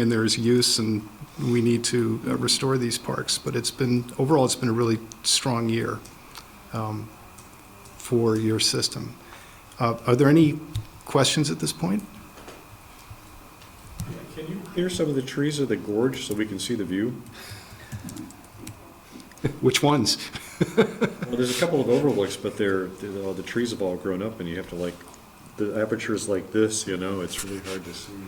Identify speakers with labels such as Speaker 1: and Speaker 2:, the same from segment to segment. Speaker 1: and there is use, and we need to uh, restore these parks. But it's been, overall, it's been a really strong year um, for your system. Uh, Are there any questions at this point?
Speaker 2: Can you clear some of the trees of the gorge so we can see the view?
Speaker 1: Which ones?
Speaker 2: Well, there's a couple of overlooks, but they're, they're- all the trees have all grown up and you have to like, the aperture's like this, you know, it's really hard to see.
Speaker 1: I-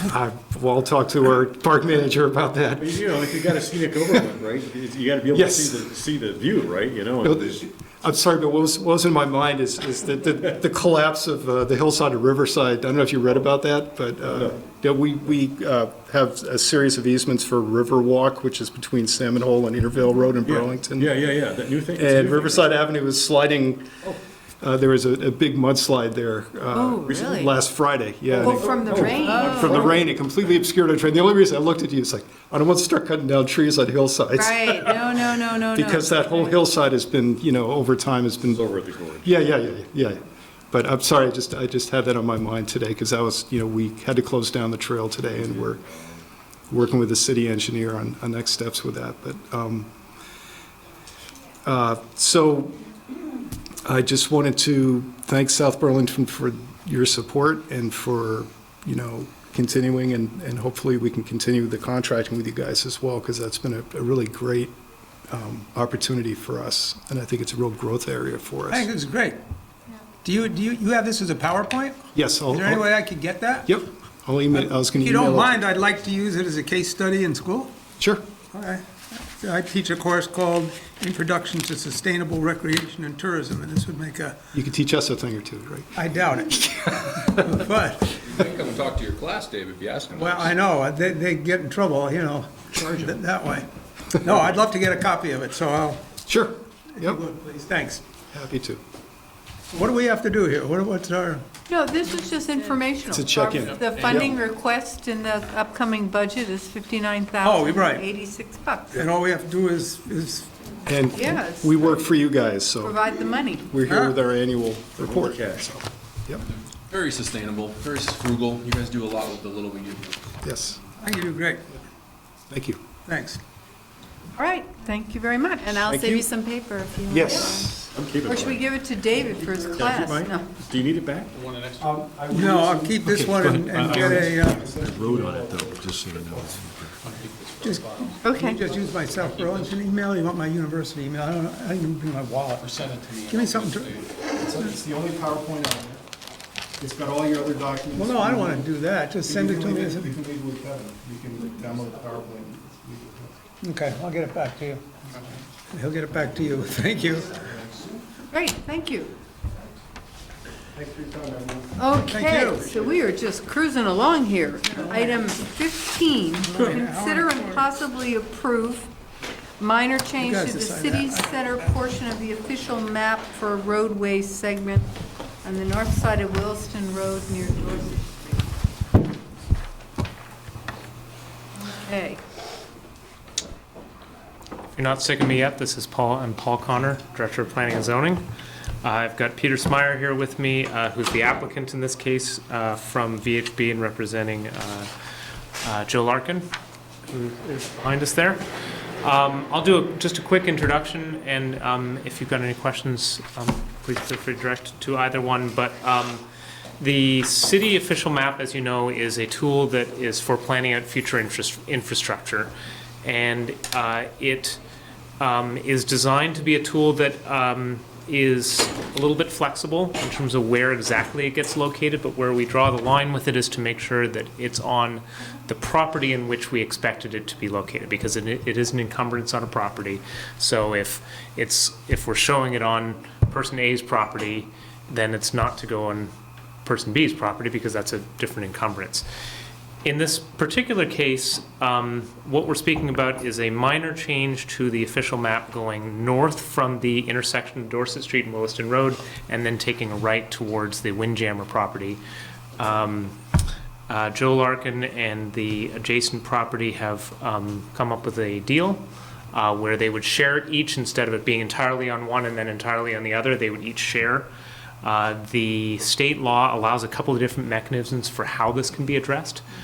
Speaker 1: Uh, Well, I'll talk to our park manager about that.
Speaker 2: But you know, if you got a scenic overlook, right, you- you gotta be able to
Speaker 1: Yes.
Speaker 2: see the, see the view, right, you know?
Speaker 1: No,
Speaker 2: and-
Speaker 1: th- I'm sorry, but what was, what was in my mind is, is that the, the collapse of uh, the hillside of Riverside, I don't know if you read about that, but, uh, yeah, we, we uh, have a series of easements for Riverwalk, which is between Salmon Hole and Intervale Road in
Speaker 2: Yeah.
Speaker 1: Burlington.
Speaker 2: Yeah, yeah, yeah, that new thing. it's a new
Speaker 1: And
Speaker 2: thing.
Speaker 1: Riverside Avenue was sliding,
Speaker 2: Oh.
Speaker 1: uh, there was a, a big mudslide there.
Speaker 3: Oh,
Speaker 1: uh,
Speaker 3: really?
Speaker 1: Last Friday, yeah.
Speaker 3: Oh, from the rain.
Speaker 1: From the rain, it completely obscured our train. The only reason I looked at you is like, I don't want to start cutting down trees on hillsides.
Speaker 3: Right, no, no, no, no, no.
Speaker 1: Because that whole hillside has been, you know, over time has been
Speaker 2: It's over at the gorge.
Speaker 1: yeah, yeah, yeah, yeah. yeah. But I'm sorry, I just, I just had that on my mind today, because that was, you know, we had to close down the trail today, and we're working with the city engineer on, on next steps with that, but, um, uh, so I just wanted to thank South Burlington for your support and for, you know, continuing, and, and hopefully we can continue the contracting with you guys as well, because that's been a, a really great, um, opportunity for us, and I think it's a real growth area for us.
Speaker 4: I think it's great. Do you, do you, you have this as a PowerPoint?
Speaker 1: Yes, I'll,
Speaker 4: Is there any way I could get that?
Speaker 1: yep, I'll email, I was gonna
Speaker 4: If you
Speaker 1: email.
Speaker 4: don't
Speaker 1: it.
Speaker 4: mind, I'd like to use it as a case study in school.
Speaker 1: Sure,
Speaker 4: All right. So I teach a course called Introduction to Sustainable Recreation and Tourism, and this would make a,
Speaker 1: you could teach us a thing or two, right?
Speaker 4: I doubt it. But,
Speaker 5: They Come and talk to your class, Dave, if you ask them.
Speaker 4: well, I know, uh, they, they get in trouble, you know, that that way. No, I'd love to get a copy of it, so I'll,
Speaker 1: Sure, yep,
Speaker 4: please, thanks.
Speaker 1: happy to.
Speaker 4: What do we have to do here? What- What's our,
Speaker 3: No, this is just informational.
Speaker 1: It's a check-in.
Speaker 3: The funding request in the upcoming budget is fifty-nine
Speaker 4: Oh,
Speaker 3: thousand
Speaker 4: you're right.
Speaker 3: eighty-six bucks.
Speaker 4: and all we have to do is, is,
Speaker 1: And
Speaker 3: Yes.
Speaker 1: we work for you guys, so
Speaker 3: Provide the money.
Speaker 1: we're here with our annual report.
Speaker 2: cash.
Speaker 1: so, Yep,
Speaker 5: Very sustainable, very frugal. You guys do a lot with the little we do.
Speaker 1: yes,
Speaker 4: I think you do great.
Speaker 1: thank you.
Speaker 4: Thanks.
Speaker 3: All right, thank you very much.
Speaker 6: And I'll
Speaker 1: Thank
Speaker 6: save
Speaker 1: you.
Speaker 6: you some paper if you want.
Speaker 1: Yes.
Speaker 2: I'm keeping
Speaker 3: Or should we
Speaker 2: mine.
Speaker 3: give it to David for his class?
Speaker 2: Mine?
Speaker 3: No.
Speaker 2: Do you need it back?
Speaker 4: No, I'll keep this one and and get a, uh,
Speaker 7: wrote on it though, just so you know.
Speaker 4: just,
Speaker 3: Okay.
Speaker 4: you just use my South Burlington email, you want my university email, I don't, I didn't even bring my wallet. Give me something to,
Speaker 1: It's the only PowerPoint on there. It's got all your other documents.
Speaker 4: well, no, I don't wanna do that, just send it to me. as a-
Speaker 1: can leave with Kevin, you can download the PowerPoint.
Speaker 4: Okay, I'll get it back to you. He'll get it back to you, thank you.
Speaker 3: Great, thank you. Okay,
Speaker 4: you.
Speaker 3: so we are just cruising along here. Item 15, consider and possibly approve minor change
Speaker 4: guys
Speaker 3: to the
Speaker 4: decide
Speaker 3: city center portion of the official map for a roadway segment on the north side of Williston Road near Dorset Street. Okay,
Speaker 8: If you're not sick of me yet, this is Paul, I'm Paul Connor, Director of Planning and Zoning. Uh, I've got Peter Smyer here with me, uh, who's the applicant in this case uh, from VHB and representing uh, uh, Joe Larkin, who is behind us there. Um, I'll do a- just a quick introduction, and um, if you've got any questions, um, please feel free to direct to either one, but um, the city official map, as you know, is a tool that is for planning out future interest- infrastructure. And uh, it um, is designed to be a tool that um, is a little bit flexible in terms of where exactly it gets located, but where we draw the line with it is to make sure that it's on the property in which we expected it to be located, because it, it is an encumbrance on a property. So if it's, if we're showing it on person A's property, then it's not to go on person B's property because that's a different encumbrance. In this particular case, um, what we're speaking about is a minor change to the official map going north from the intersection of Dorset Street and Williston Road, and then taking a right towards the Windjammer property. Um, uh, Joe Larkin and the adjacent property have um, come up with a deal uh, where they would share it each instead of it being entirely on one and then entirely on the other, they would each share. Uh, The state law allows a couple of different mechanisms for how this can be addressed.